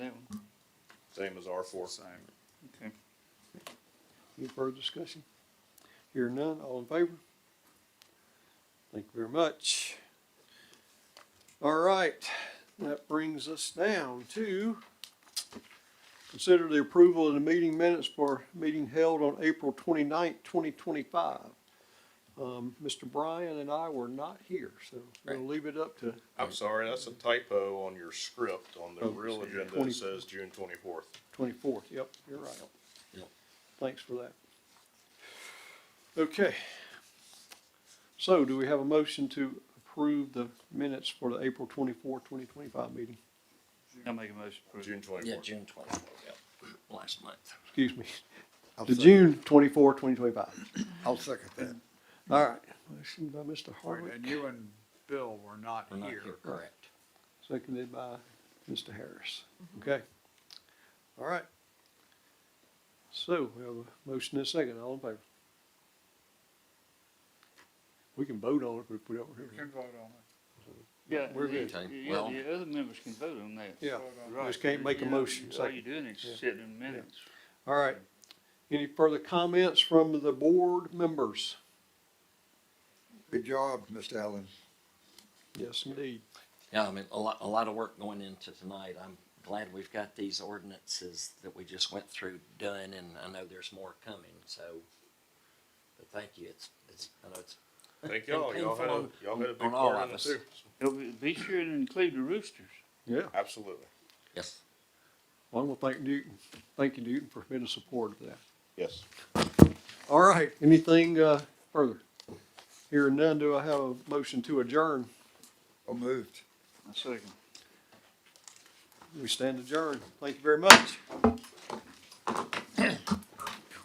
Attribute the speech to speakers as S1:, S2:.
S1: same as R four.
S2: Same, okay.
S3: Any further discussion? Hear none, all in favor? Thank you very much. All right, that brings us down to consider the approval of the meeting minutes for meeting held on April twenty-ninth, twenty twenty-five. Um, Mr. Bryan and I were not here, so we'll
S2: Right.
S3: leave it up to,
S1: I'm sorry, that's a typo on your script. On the
S3: Oh,
S1: real
S3: so
S1: agenda,
S3: 20
S1: it says June twenty-fourth.
S3: Twenty-fourth, yep, you're right.
S4: Yep.
S3: Thanks for that. Okay. So do we have a motion to approve the minutes for the April twenty-four, twenty twenty-five meeting?
S2: I'll make a motion for it.
S1: June
S4: Yeah,
S1: twenty-fourth.
S4: June twenty-fourth, yeah, last month.
S3: Excuse me,
S5: I'll
S3: the
S5: sec-
S3: June twenty-four, twenty twenty-five.
S5: I'll second that.
S3: All right, motion by Mr.
S2: Right,
S3: Hardwick,
S2: And you and Bill were not
S4: We're not
S2: here.
S4: here, correct.
S3: seconded by Mr. Harris. Okay. All right. So we have a motion and a second, all in favor? We can vote on it, but put it over here.
S2: You can vote on
S6: Yeah,
S3: We're
S6: the-
S4: good. Okay,
S6: Yeah,
S4: well-
S6: the other members can vote on that.
S3: Yeah,
S6: Right.
S3: just can't make a
S6: Yeah,
S3: motion,
S6: All
S3: second.
S6: you're doing is
S3: Yeah.
S6: sitting in minutes.
S3: all right. Any further comments from the board members?
S5: Good job, Mr. Allen.
S3: Yes, indeed.
S4: Yeah, I mean, a lot, a lot of work going into tonight. I'm glad we've got these ordinances that we just went through done, and I know there's more coming, so. But thank you, it's, it's, I know it's,
S1: Thank y'all. Y'all had a,
S4: Painful
S1: y'all had a big
S4: on all
S1: part
S4: of
S1: in it
S4: us.
S1: too.
S6: Oh, be- Be sure to include the roosters.
S3: Yeah.
S1: Absolutely.
S4: yes,
S3: Well, I'm gonna thank Newton, thank you, Newton, for being a supporter of that.
S1: Yes.
S3: All right, anything, uh, further? Hearing none, do I have a motion to adjourn?
S5: I moved.
S6: I second.
S3: We stand adjourned. Thank you very much.